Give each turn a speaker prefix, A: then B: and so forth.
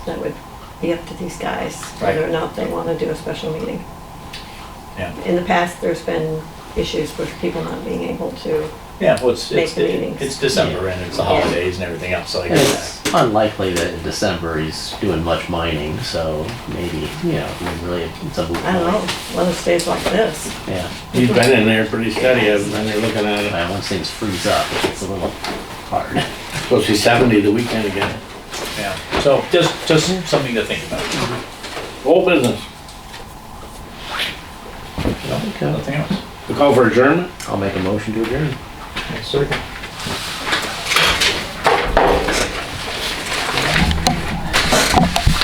A: That would be up to these guys, whether or
B: Right.
A: not they want to do a special meeting.
B: Yeah,
A: In the past, there's been issues with people not being able to,
B: yeah, well, it's,
A: Make
B: it's,
A: the meetings.
B: it's December and it's the
A: Yeah.
B: holidays and everything else, so I
C: And
B: get
C: It's
B: that.
C: unlikely that in December he's doing much mining, so maybe, you know, I mean, really, it's a moot
A: I don't know,
C: point.
A: one of stays like this.
C: Yeah,
D: He's been in there pretty steady, I've been there looking at it.
C: Uh, once things freeze up, it's a little hard.
D: Supposed to be seventy the weekend again.
B: Yeah, so just, just something to think about, you
D: Whole business.
B: know,
C: Okay.
B: nothing else.
D: The call for adjournment?
C: I'll make a motion to adjourn.
B: Next circuit.